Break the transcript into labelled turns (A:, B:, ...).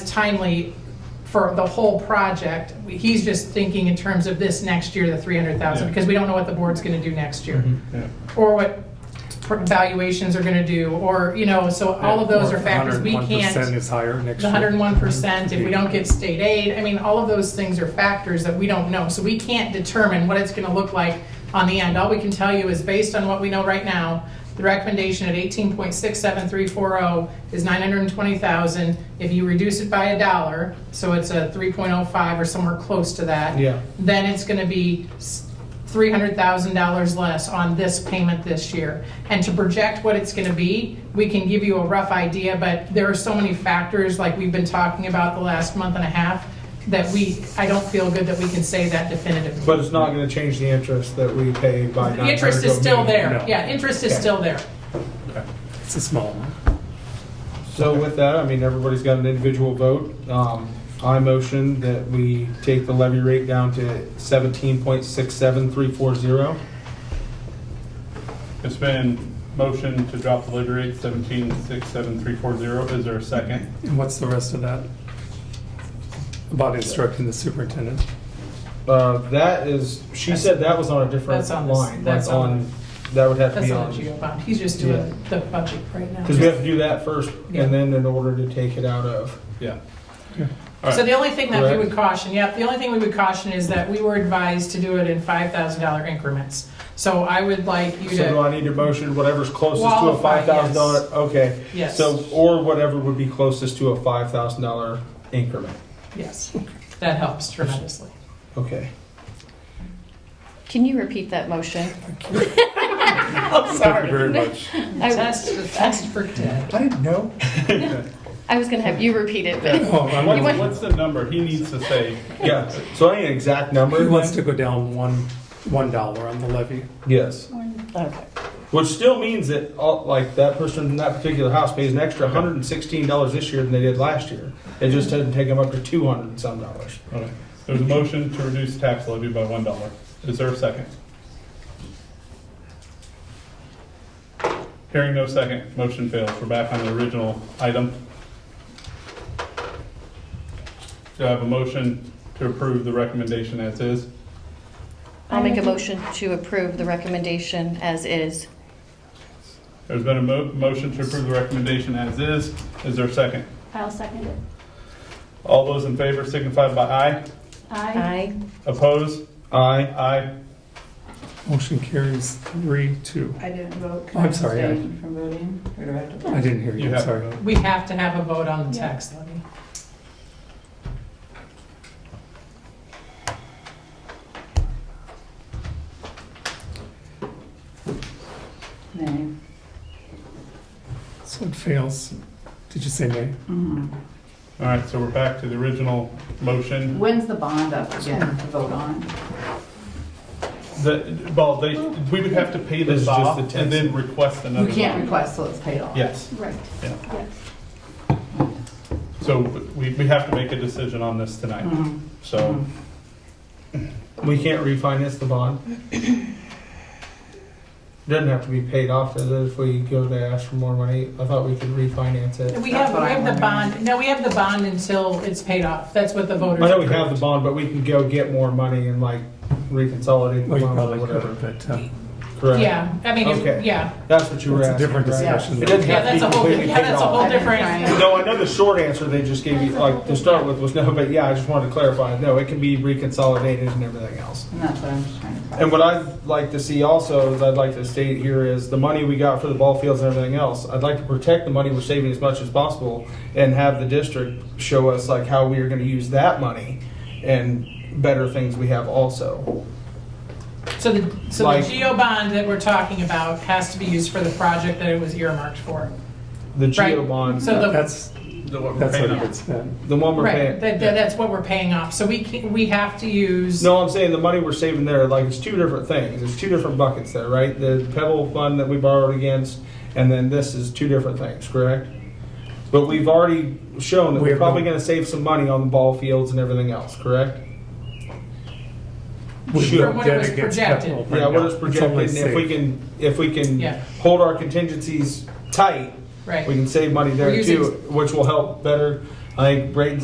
A: timely for the whole project. He's just thinking in terms of this next year, the 300,000,
B: Yeah. Mm-hmm.
A: because we don't know what the board's going to do next year.
B: Yeah.
A: Or what valuations are going to do, or, you know, so all of those
B: Or
A: are factors we
B: 101%
A: can't.
B: is higher next
A: The
B: year.
A: hundred and one percent, if we don't get state aid, I mean, all of those things are factors that we don't know. So we can't determine what it's gonna look like on the end. All we can tell you is based on what we know right now, the recommendation at eighteen point six seven three four oh is nine hundred and twenty thousand. If you reduce it by a dollar, so it's a three point oh five or somewhere close to that.
C: Yeah.
A: Then it's gonna be three hundred thousand dollars less on this payment this year. And to project what it's gonna be, we can give you a rough idea, but there are so many factors, like we've been talking about the last month and a half, that we, I don't feel good that we can say that definitively.
C: But it's not gonna change the interest that we pay by
A: The
C: not.
A: interest is still there,
B: No.
A: yeah, interest is still there.
B: It's a small one.
C: So with that, I mean, everybody's got an individual vote. Um, I motion that we take the levy rate down to seventeen point six seven three four zero.
B: It's been motion to drop the levy rate seventeen six seven three four zero. Is there a second?
D: And what's the rest of that? About instructing the superintendent?
C: Uh, that is, she said that was on a different
A: That's on this-
C: line.
A: that's
C: like
A: on-
C: That would have to
A: That's
C: be
A: not
C: on.
A: a GO bond, he's just
C: Yeah.
A: doing the budget right now.
C: Because we have to do that first
A: Yeah.
C: and then in order to take it out of.
B: Yeah.
A: So the only thing that we
C: Correct.
A: would caution, yep, the only thing we would caution is that we were advised to do it in five thousand dollar increments. So I would like you to.
C: So do I need to motion whatever's closest to a
A: Qualify,
C: five thousand dollar?
A: yes.
C: Okay.
A: Yes.
C: So, or whatever would be closest to a five thousand dollar increment.
A: Yes, that helps tremendously.
C: Okay.
E: Can you repeat that motion?
B: Thank you very much.
E: I
A: Test, test for dead.
C: I didn't know.
E: I was going to have you repeat it, but
D: Oh, I
E: You
B: What's,
E: want-
B: what's the number? He needs to say,
C: Yeah. So I need an exact number.
D: He wants to go down one, one dollar on the levy.
C: Yes.
E: okay.
C: Which still means that, all, like, that person in that particular house pays an extra one hundred and sixteen dollars this year than they did last year. It just doesn't take them up to two hundred and some dollars.
B: okay. there's a motion to reduce tax levy by one dollar. Is there a second? Hearing no second, motion fails. We're back on the original item. Do I have a motion to approve the recommendation as is?
E: I'll make a motion to approve the recommendation as is.
B: There's been a mo- motion to approve the recommendation as is. Is there a second?
F: I'll second it.
B: All those in favor signify by aye.
F: Aye.
E: Aye.
B: Opposed?
C: Aye.
B: Aye.
D: Motion carries three, two.
G: I didn't vote.
D: Oh, I'm sorry, I-
G: Abstain From voting, or do I have to? vote?
D: I didn't hear
B: You
D: you, I'm
B: have
D: sorry.
B: to vote.
A: We have to have a vote on the tax levy.
G: Nay.
D: So it fails. Did you say nay?
G: Mhm.
B: All right, so we're back to the original motion.
G: When's the bond up again to vote on?
B: The, well, they, we would have to pay
C: This
B: this
C: is just
B: off
C: the tax.
B: and then request another.
G: You can't
B: one.
G: request till it's paid off.
B: Yes,
F: Right.
B: Yeah.
F: Yes.
B: so we, we have to make a decision on this tonight,
G: Mhm.
B: so.
C: We can't refinance the bond. Doesn't have to be paid off, does it, if we go to ask for more money? I thought we could refinance it.
A: We
G: That's
A: have,
G: what
A: we
G: I'm
A: have the
G: wondering.
A: bond, no, we have the bond until it's paid off. That's what the
C: I
A: voters.
C: know we have the bond, but we can go get more money and like reconsolidate the
D: Well, Oh, you
C: loan or
D: probably
C: whatever.
D: could, but, uh,
C: Correct.
A: Yeah, I mean,
C: Okay.
A: if- yeah,
C: That's what you were
D: It's a
C: asking.
D: different
C: right?
D: discussion.
C: It doesn't
A: yeah,
C: have to be
A: that's a whole,
C: completely
A: yeah,
C: paid
A: that's a whole
C: off.
A: different.
C: No, I know the short answer they just gave you, like, to start with was no, but yeah, I just wanted to clarify, no, it can be reconsolidated and everything else.
G: And that's what I'm just trying to. clarify.
C: And what I'd like to see also, is I'd like to state here is the money we got for the ball fields and everything else, I'd like to protect the money we're saving as much as possible and have the district show us like how we are gonna use that money and better things we have also.
A: So the, so the
C: Like-
A: GO bond that we're talking about has to be used for the project that it was earmarked for.
C: The geo
A: Right.
C: bond,
A: So the-
D: That's,
B: The what we're
D: that's
B: paying
D: what
B: on.
D: it's been.
C: the one we're
A: Right,
C: paying.
A: that, that- that's what we're paying off. So we can, we have to use.
C: No, I'm saying the money we're saving there, like, it's two different things, it's two different buckets there, right? The Pebble fund that we borrowed against, and then this is two different things, correct? But we've already shown that
D: We
C: we're
D: have
C: probably
D: no-
C: gonna save some money on the ball fields and everything else, correct?
D: We've
C: Sure.
D: got
A: From what it was
D: debt against
A: projected.
D: capital right
C: Yeah,
D: now.
C: we're just
D: It's
C: projecting,
D: only
C: if we
D: safe.
C: can, if we can
A: Yeah.
C: hold our contingencies tight, we
A: Right.
C: can save money there
A: We're using-
C: too, which will help better, I think Braden's